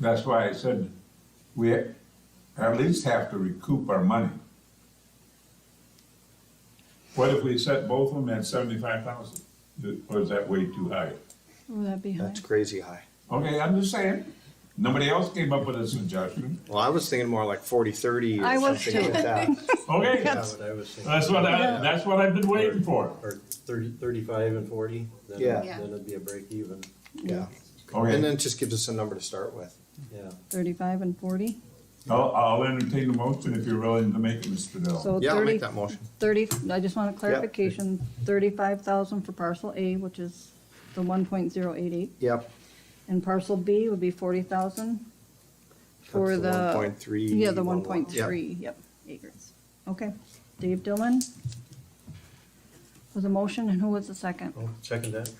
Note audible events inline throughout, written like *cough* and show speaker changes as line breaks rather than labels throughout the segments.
That's why I said we at least have to recoup our money. What if we set both of them at seventy-five thousand? Or is that way too high?
Would that be high?
That's crazy high.
Okay, I'm just saying, nobody else came up with a suggestion.
Well, I was thinking more like forty, thirty
I
or
was
something
too.
like that.
*laughs*
Okay,
That's what I was thinking.
that's what I, that's what I've been waiting for.
Or thirty, thirty-five and forty, then,
Yeah.
then it'd be a break even,
Yeah. And
Okay,
then it just gives us a number to start with.
yeah.
Thirty-five and forty?
I'll, I'll entertain the motion if you're willing to make it, Mr. Dell.
So
Yeah, I'll make
thirty,
that motion.
thirty, I just want a clarification, thirty-five thousand for parcel A, which is the one point zero eight eight,
Yep.
and parcel B would be forty thousand for
That's the
the.
1.3,
Yeah, the one
one one.
point three, yep, acres. Okay, Dave Dillon was a motion, and who was the second?
Oh, Second that,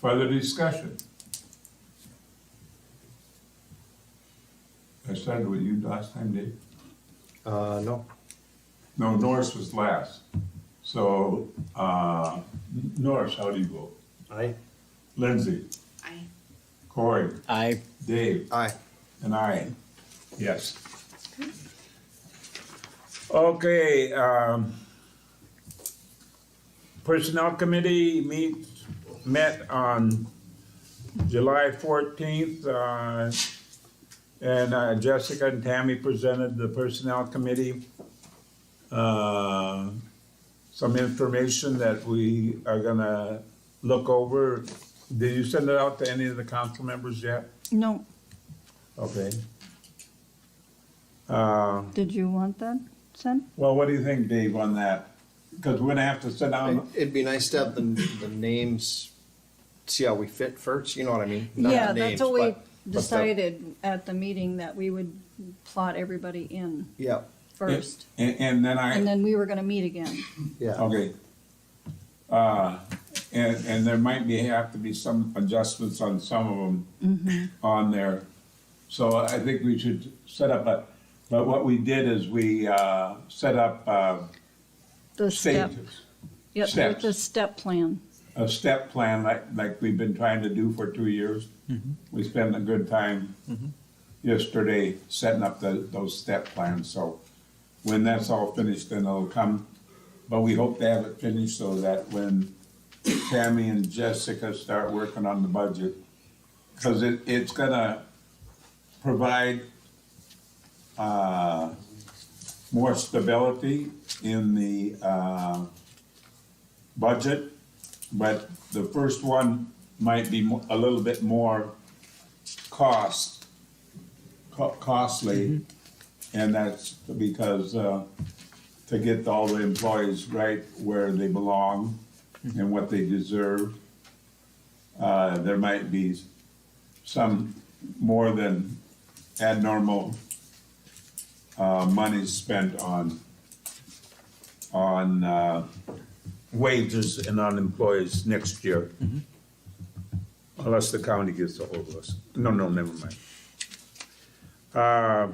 Further discussion? I started with you last time, Dave.
Uh, no,
No, Norris was last. So, uh, Norris, how do you vote?
aye,
Lindsay,
I
Corey,
I
Dave,
aye.
and I. Yes. Okay, um, Personnel Committee meets, met on July fourteenth, uh, and uh, Jessica and Tammy presented the Personnel Committee, uh, some information that we are gonna look over. Did you send it out to any of the council members yet?
No,
Okay. Uh,
did you want that sent?
well, what do you think, Dave, on that? Because we're gonna have to sit down,
It'd be nice to have the, the names, see how we fit first, you know what I mean? Not the
Yeah, that's
names,
what we
but- but the-
decided at the meeting, that we would plot everybody in
Yeah,
first.
and, and then I.
And then we were gonna meet again.
yeah.
Okay. Uh, and, and there might be, have to be some adjustments on some of them
Mm-hmm.
on there. So I think we should set up a, but what we did is we, uh, set up, uh,
The step,
stages.
yep,
steps.
the step plan.
A step plan like, like we've been trying to do for two years. We spent a good time yesterday setting up the, those step plans, so when that's all finished, then it'll come. But we hope to have it finished so that when Tammy and Jessica start working on the budget, because it, it's gonna provide, uh, more stability in the, uh, budget, but the first one might be mo- a little bit more cost, co- costly. And that's because, uh, to get all the employees right where they belong and what they deserve, uh, there might be some more than abnormal, uh, money spent on, on, uh, wages and on employees next year. Unless the county gets a hold of us. No, no, never mind. Uh,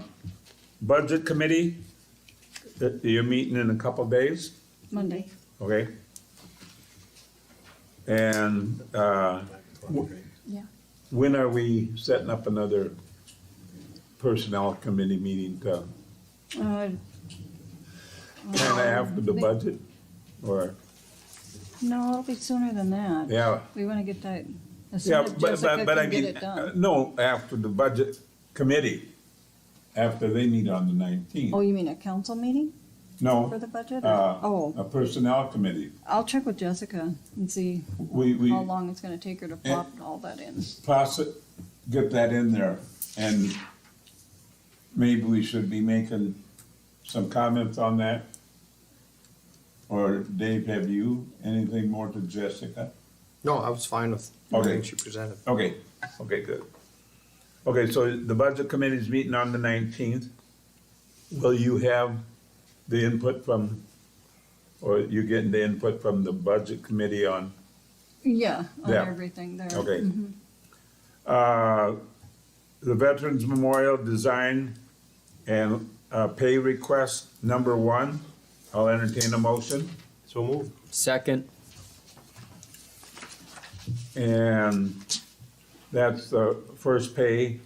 Budget committee, that you're meeting in a couple days,
Monday.
okay? And uh,
Yeah.
when are we setting up another personnel committee meeting to
Uh,
kind of after the budget? Or,
no, it'll be sooner than that.
yeah,
We wanna get that, as soon
Yeah,
as
but,
Jessica
but, but I
can get
mean,
it
uh,
done.
no, after the budget committee, after they meet on the
Oh,
nineteenth.
you mean a council meeting for
No,
the budget? or-
uh, a
Oh,
personnel committee.
I'll check with Jessica and see
We, we
how long it's gonna take her to plot all that in.
possi- get that in there and maybe we should be making some comments on that. Or Dave, have you anything more to Jessica?
No, I was fine with everything she presented.
Okay, okay, good. Okay, so the budget committee's meeting on the nineteenth. Will you have the input from, or you getting the input from the budget committee on,
Yeah, on
Yeah.
everything there.
okay? Uh, the Veterans Memorial Design and, uh, pay request number one, I'll entertain a motion.
so move.
Second.
And that's the first pay